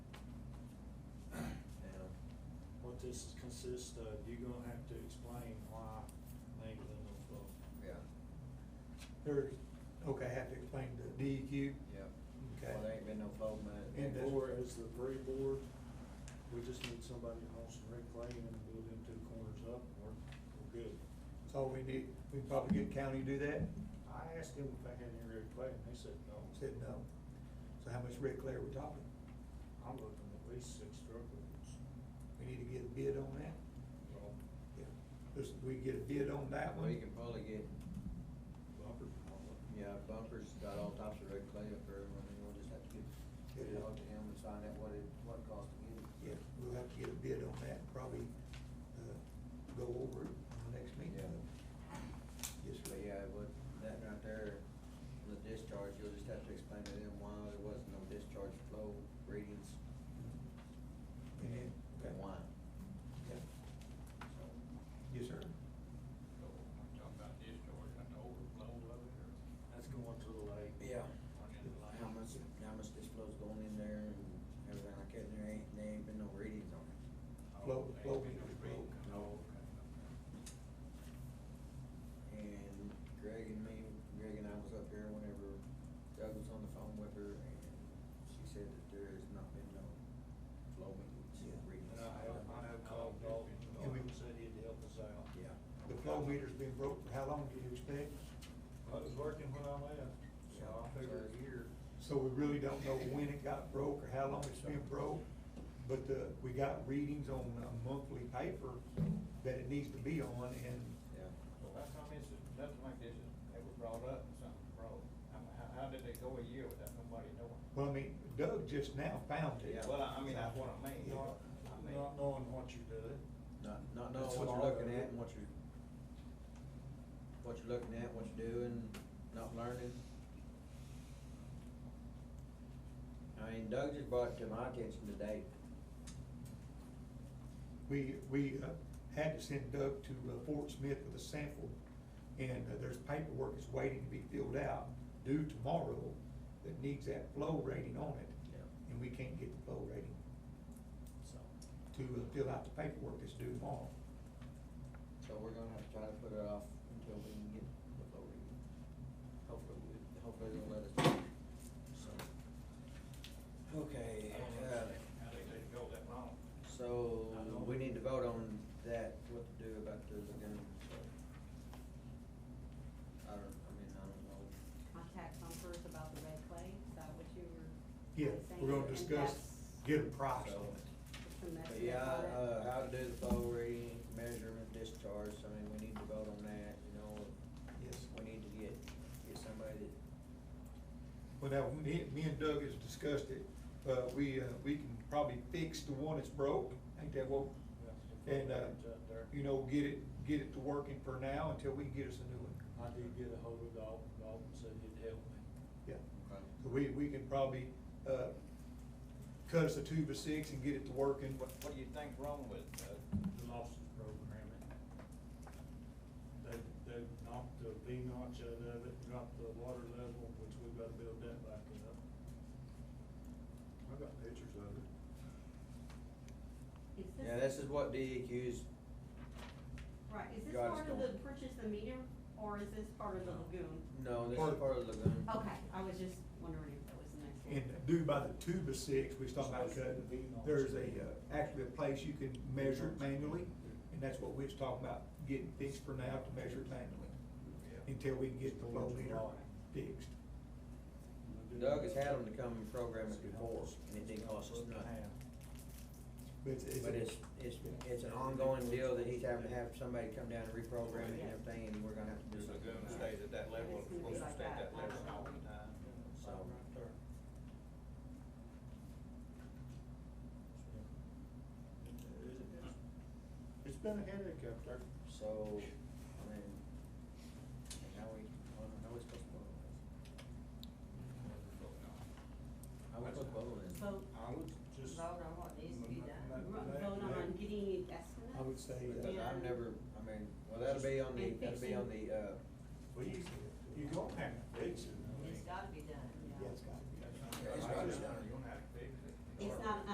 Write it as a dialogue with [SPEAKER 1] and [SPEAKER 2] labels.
[SPEAKER 1] this consists of, you're gonna have to explain why names in those books.
[SPEAKER 2] Yeah,
[SPEAKER 3] There's, okay, I have to explain the DEQ.
[SPEAKER 2] yeah. Well, there
[SPEAKER 3] Okay.
[SPEAKER 2] ain't been no flow
[SPEAKER 3] And
[SPEAKER 2] money.
[SPEAKER 3] that's-
[SPEAKER 1] Or as the pre board, we just need somebody to haul some red clay and build them two corners up, and we're, we're good.
[SPEAKER 3] That's all we need. We can probably get county to do that.
[SPEAKER 1] I asked them if I had any red clay, and they said no.
[SPEAKER 3] Said no. So how much red clay are we talking?
[SPEAKER 1] I'm looking at least six truck loads.
[SPEAKER 3] We need to get a bid on that.
[SPEAKER 1] Well,
[SPEAKER 3] Yeah. Just, we get a bid on that
[SPEAKER 2] Well, you
[SPEAKER 3] one.
[SPEAKER 2] can probably get,
[SPEAKER 1] bumpers and all that.
[SPEAKER 2] yeah, bumpers got all types of red clay up there, and then we'll just have to get, get it out to him and find out what it, what it costs to get it.
[SPEAKER 3] Yeah, we'll have to get a bid on that, probably, uh, go over it on the next meeting. Yes,
[SPEAKER 2] But
[SPEAKER 3] sir.
[SPEAKER 2] yeah, but that right there, the discharge, you'll just have to explain to them why there wasn't no discharge flow readings
[SPEAKER 3] And then, okay.
[SPEAKER 2] and why.
[SPEAKER 3] Yeah.
[SPEAKER 2] So,
[SPEAKER 3] Yes, sir.
[SPEAKER 4] So, I'm talking about discharge, like the overflow of it, or
[SPEAKER 1] That's going to the lake.
[SPEAKER 2] Yeah.
[SPEAKER 4] running in the
[SPEAKER 2] How
[SPEAKER 4] line?
[SPEAKER 2] much, how much this flow's going in there and everything like that, and there ain't, there ain't been no readings on it.
[SPEAKER 3] Flow-
[SPEAKER 4] Oh,
[SPEAKER 3] flow
[SPEAKER 4] ain't been
[SPEAKER 3] meter,
[SPEAKER 4] no break.
[SPEAKER 2] flow.
[SPEAKER 4] Oh, okay,
[SPEAKER 2] And Greg and me, Greg and I was up here whenever Doug was on the phone with her, and she said that there has not been no flow meetings,
[SPEAKER 3] Yeah.
[SPEAKER 2] readings.
[SPEAKER 1] And I have, I have called Dalton, Dalton said he'd help us out.
[SPEAKER 2] Yeah.
[SPEAKER 3] The flow meter's been broke for how long do you expect?
[SPEAKER 1] I was working when I left, so I figure a year.
[SPEAKER 3] So we really don't know when it got broke or how long it's been broke, but the, we got readings on a monthly paper that it needs to be on, and
[SPEAKER 2] Yeah.
[SPEAKER 4] okay. Well, how come this is, nothing like this is, ever brought up, and something broke? I mean, how, how did they go a year without nobody knowing?
[SPEAKER 3] Well, I mean, Doug just now found it.
[SPEAKER 2] Yeah.
[SPEAKER 4] Well, I mean, that's what I mean, you know,
[SPEAKER 1] Not,
[SPEAKER 4] I mean,
[SPEAKER 1] not knowing what you did.
[SPEAKER 2] Not, not knowing
[SPEAKER 3] That's
[SPEAKER 2] what
[SPEAKER 3] all
[SPEAKER 2] you're looking
[SPEAKER 3] there is.
[SPEAKER 2] at and what you're, what you're looking at, what you're doing, not learning. I mean, Doug just brought it to my attention today.
[SPEAKER 3] We, we uh, had to send Doug to uh, Fort Smith with a sample, and uh, there's paperwork that's waiting to be filled out due tomorrow that needs that flow rating on it,
[SPEAKER 2] Yeah.
[SPEAKER 3] and we can't get the flow rating
[SPEAKER 2] So,
[SPEAKER 3] to uh, fill out the paperwork that's due tomorrow.
[SPEAKER 2] so we're gonna have to try to put it off until we can get the flow reading. Hopefully, we- hopefully they'll let us do it, so.
[SPEAKER 4] I
[SPEAKER 2] Okay,
[SPEAKER 4] don't
[SPEAKER 2] uh,
[SPEAKER 4] understand how they let it go that long. I
[SPEAKER 2] so
[SPEAKER 4] don't-
[SPEAKER 2] we need to vote on that, what to do about the lagoon, so. I don't, I mean, I don't know.
[SPEAKER 5] contact Comfort about the red clay, is that what you were?
[SPEAKER 3] Yeah,
[SPEAKER 5] saying?
[SPEAKER 3] we're gonna
[SPEAKER 5] And
[SPEAKER 3] discuss,
[SPEAKER 5] that's-
[SPEAKER 3] get a price on it.
[SPEAKER 5] it's a mess
[SPEAKER 2] But
[SPEAKER 5] with
[SPEAKER 2] yeah,
[SPEAKER 5] all that.
[SPEAKER 2] uh, how to do the flow reading, measurement, discharge, I mean, we need to vote on that, you know,
[SPEAKER 3] Yes.
[SPEAKER 2] we need to get, get somebody that,
[SPEAKER 3] Well, now, me, me and Doug has discussed it, uh, we, uh, we can probably fix the one that's broke, ain't that what? And, uh, you know, get it, get it to working for now until we can get us a new one.
[SPEAKER 1] I did get a hold of Dalton, Dalton said he'd help me.
[SPEAKER 3] Yeah, so we, we can probably, uh, cut us a tube of six and get it to working.
[SPEAKER 4] What, what do you think wrong with, uh,
[SPEAKER 1] The losses programming. They, they knocked the V notch out of it, dropped the water level, which we've got to build that back up. I got pictures of it.
[SPEAKER 5] Is
[SPEAKER 2] yeah, this is what E DEQ's,
[SPEAKER 5] Right, is this
[SPEAKER 2] God,
[SPEAKER 5] part of
[SPEAKER 2] it's
[SPEAKER 5] the
[SPEAKER 2] going.
[SPEAKER 5] purchase the meter, or is this part of the lagoon?
[SPEAKER 2] no, this is part of the lagoon.
[SPEAKER 5] Okay, I was just wondering if that was the next one.
[SPEAKER 3] And due by the tube of six, we was talking about cutting, there's a, uh, actually a place you can measure it manually, and that's what we was talking about, getting fixed for now to measure it manually, until we can get the flow meter fixed.
[SPEAKER 2] Doug has had them to come and program it before, and it didn't cost us nothing.
[SPEAKER 3] But it's,
[SPEAKER 2] But it's, it's, it's an ongoing deal that he's having to have somebody come down and reprogram it and everything, and we're gonna have to do
[SPEAKER 4] this
[SPEAKER 2] something.
[SPEAKER 4] lagoon stays at that level, it's supposed to stay at that level all the time?
[SPEAKER 2] So,
[SPEAKER 1] It's been a headache up there.
[SPEAKER 2] so, I mean, and how we, how we supposed to vote on this? I would put both in.
[SPEAKER 5] Vote,
[SPEAKER 1] I would just.
[SPEAKER 6] Vote on what needs to be done.
[SPEAKER 5] vote on getting estimates?
[SPEAKER 3] I would say,
[SPEAKER 2] Because
[SPEAKER 3] uh,
[SPEAKER 5] Yeah.
[SPEAKER 2] I've never, I mean, well, that'll be on the,
[SPEAKER 5] And
[SPEAKER 2] that'll be on the, uh,
[SPEAKER 1] Well, you, you don't have to fix it. I mean.
[SPEAKER 6] It's gotta be done.
[SPEAKER 3] yeah, it's got to be.
[SPEAKER 2] it's gotta be done.